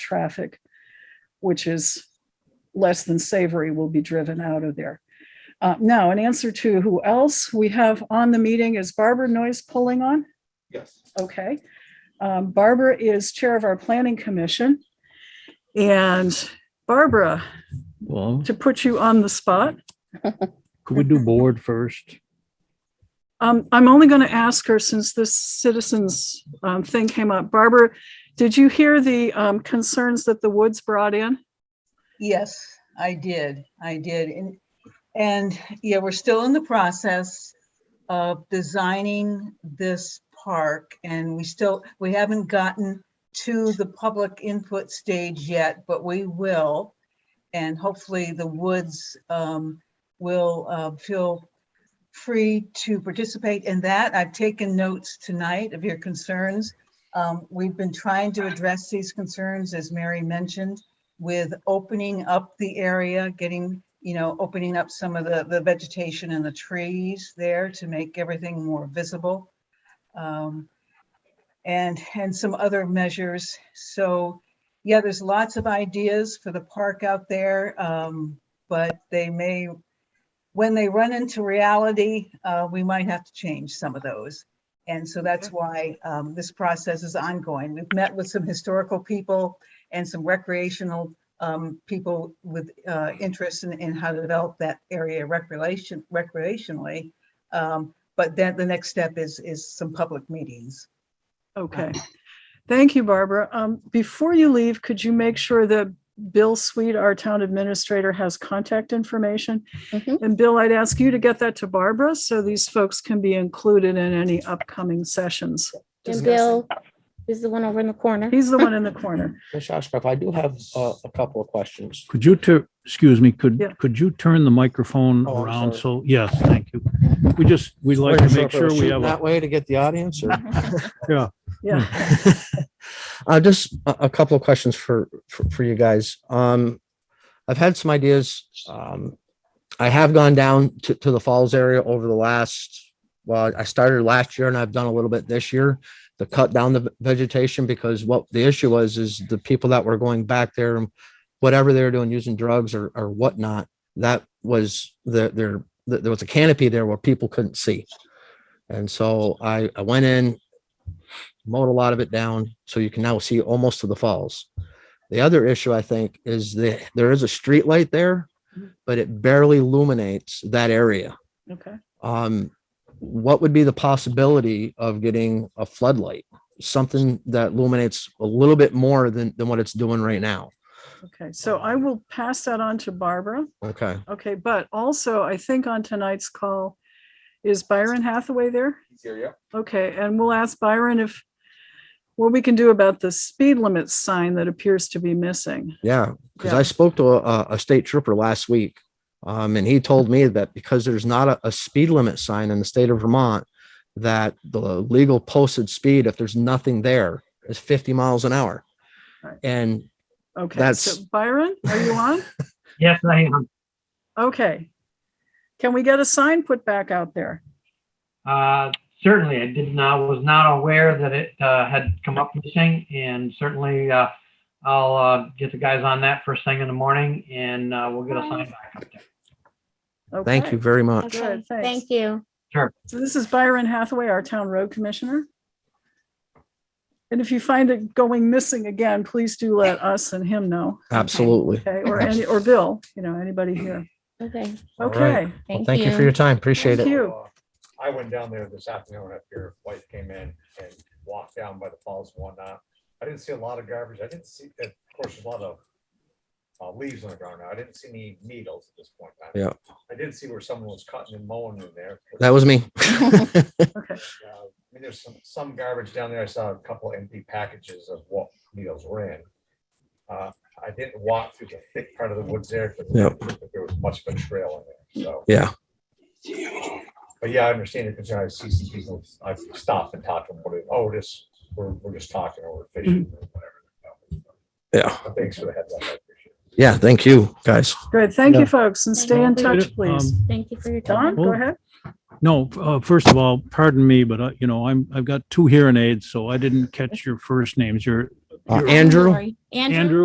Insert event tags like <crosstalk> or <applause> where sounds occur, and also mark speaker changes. Speaker 1: traffic, which is less than savory, will be driven out of there. Uh, Now, in answer to who else we have on the meeting is Barbara Noise pulling on.
Speaker 2: Yes.
Speaker 1: Okay. Um, Barbara is Chair of our Planning Commission. And Barbara,
Speaker 3: Well,
Speaker 1: to put you on the spot, <laughs>
Speaker 3: could we do board first?
Speaker 1: Um, I'm only going to ask her since this citizens um, thing came up. Barbara, did you hear the um, concerns that the Woods brought in?
Speaker 4: Yes, I did. I did. And, and yeah, we're still in the process of designing this park and we still, we haven't gotten to the public input stage yet, but we will. And hopefully the woods um, will uh, feel free to participate in that. I've taken notes tonight of your concerns. Um, We've been trying to address these concerns, as Mary mentioned with opening up the area, getting, you know, opening up some of the, the vegetation and the trees there to make everything more visible. Um, And, and some other measures. So, yeah, there's lots of ideas for the park out there. um, But they may, when they run into reality, uh, we might have to change some of those. And so that's why um, this process is ongoing. We've met with some historical people and some recreational um, people with uh, interest in, in how to develop that area recreation, recreationally. Um, But then the next step is, is some public meetings.
Speaker 1: Okay. <laughs> Thank you, Barbara. Um, Before you leave, could you make sure that Bill Sweet, our town administrator, has contact information?
Speaker 5: Mhm.
Speaker 1: And Bill, I'd ask you to get that to Barbara so these folks can be included in any upcoming sessions.
Speaker 5: And Bill is the one over in the corner.
Speaker 1: He's the one in the
Speaker 5: <laughs>
Speaker 1: corner.
Speaker 6: Ms. Oshkoff, I do have uh, a couple of questions.
Speaker 3: Could you tur, excuse me,
Speaker 1: Yeah.
Speaker 3: could, could you turn the microphone
Speaker 6: Oh, I'm
Speaker 3: around?
Speaker 6: sorry.
Speaker 3: So, yes, thank you. We just, we'd like to
Speaker 6: Wasn't
Speaker 3: make
Speaker 6: if I
Speaker 3: sure
Speaker 6: was
Speaker 3: we
Speaker 6: shooting
Speaker 3: have,
Speaker 6: That
Speaker 3: a-
Speaker 6: way to get the audience or?
Speaker 1: Yeah.
Speaker 6: <laughs> Uh, just a, a couple of questions for, for, for you guys. Um, I've had some ideas. Um, I have gone down to, to the falls area over the last, well, I started last year and I've done a little bit this year to cut down the vegetation because what the issue was is the people that were going back there and whatever they were doing, using drugs or, or whatnot, that was the, there, there was a canopy there where people couldn't see. And so I, I went in, mowed a lot of it down, so you can now see almost to the falls. The other issue, I think, is that there is a street light there, but it barely illuminates that area.
Speaker 1: Okay.
Speaker 6: Um, what would be the possibility of getting a floodlight? Something that illuminates a little bit more than, than what it's doing right now.
Speaker 1: Okay. So I will pass that on to Barbara.
Speaker 6: Okay.
Speaker 1: Okay, but also I think on tonight's call, is Byron Hathaway there?
Speaker 2: He's here, yeah.
Speaker 1: Okay, and we'll ask Byron if, what we can do about the speed limit sign that appears to be missing.
Speaker 6: Yeah, because
Speaker 1: Yeah.
Speaker 6: I spoke to a, a state trooper last week, um, and he told me that because there's not a, a speed limit sign in the state of Vermont, that the legal posted speed, if there's nothing there, is 50 miles an hour.
Speaker 1: Right.
Speaker 6: And
Speaker 1: Okay,
Speaker 6: That's-
Speaker 1: so Byron, are you on?
Speaker 7: Yes, I am.
Speaker 1: Okay. Can we get a sign put back out there?
Speaker 7: Uh, Certainly, I did not, was not aware that it uh, had come up missing, and certainly uh, I'll uh, get the guys on that first thing in the morning, and uh, we'll get a sign back up there.
Speaker 6: thank
Speaker 1: Okay.
Speaker 6: you very much.
Speaker 5: Okay,
Speaker 1: Good, thanks.
Speaker 5: thank you.
Speaker 1: So this is Byron Hathaway, our town road commissioner. And if you find it going missing again, please do let us and him know,
Speaker 6: Absolutely.
Speaker 1: okay, or any, or Bill, you know, anybody here.
Speaker 5: Okay,
Speaker 6: All right.
Speaker 1: Okay.
Speaker 6: Well,
Speaker 5: thank
Speaker 6: thank you for your
Speaker 5: you.
Speaker 6: time. Appreciate
Speaker 1: Thank
Speaker 6: it.
Speaker 1: you.
Speaker 2: Uh, I went down there this afternoon after your wife came in and walked down by the falls and whatnot. I didn't see a lot of garbage. I didn't see, of course, there's a lot of uh, leaves on the ground now. I didn't see any needles at this point. in time. I did see where someone was cutting and mowing in there.
Speaker 6: That
Speaker 1: <laughs>
Speaker 6: was me. <laughs>
Speaker 1: Okay.
Speaker 2: Uh, I mean, there's some, some garbage down there. I saw a couple empty packages of what needles were in. Uh, I didn't walk through the thick part of the woods there. 'cause
Speaker 6: Yep.
Speaker 2: There was much of a trail in there, so.
Speaker 6: Yeah.
Speaker 2: But yeah, I understand it, because I see some people, I've stopped and talked to them, but, oh, this, we're, we're just talking or we're fishing or whatever.
Speaker 6: Yeah.
Speaker 2: But Thanks for the heads up. I appreciate it.
Speaker 6: Yeah. Thank you, guys.
Speaker 1: Good. Thank
Speaker 3: Yeah.
Speaker 1: you, folks, and stay in touch, please.
Speaker 3: Um,
Speaker 5: Thank you for your
Speaker 1: Don,
Speaker 5: time.
Speaker 1: go ahead.
Speaker 3: No, uh, first of all, pardon me, but I, you know, I'm, I've got two hearing aids, so I didn't catch your first names. Your
Speaker 6: Uh,
Speaker 5: I'm
Speaker 6: Andrew?
Speaker 5: sorry. Andrew?
Speaker 3: Andrew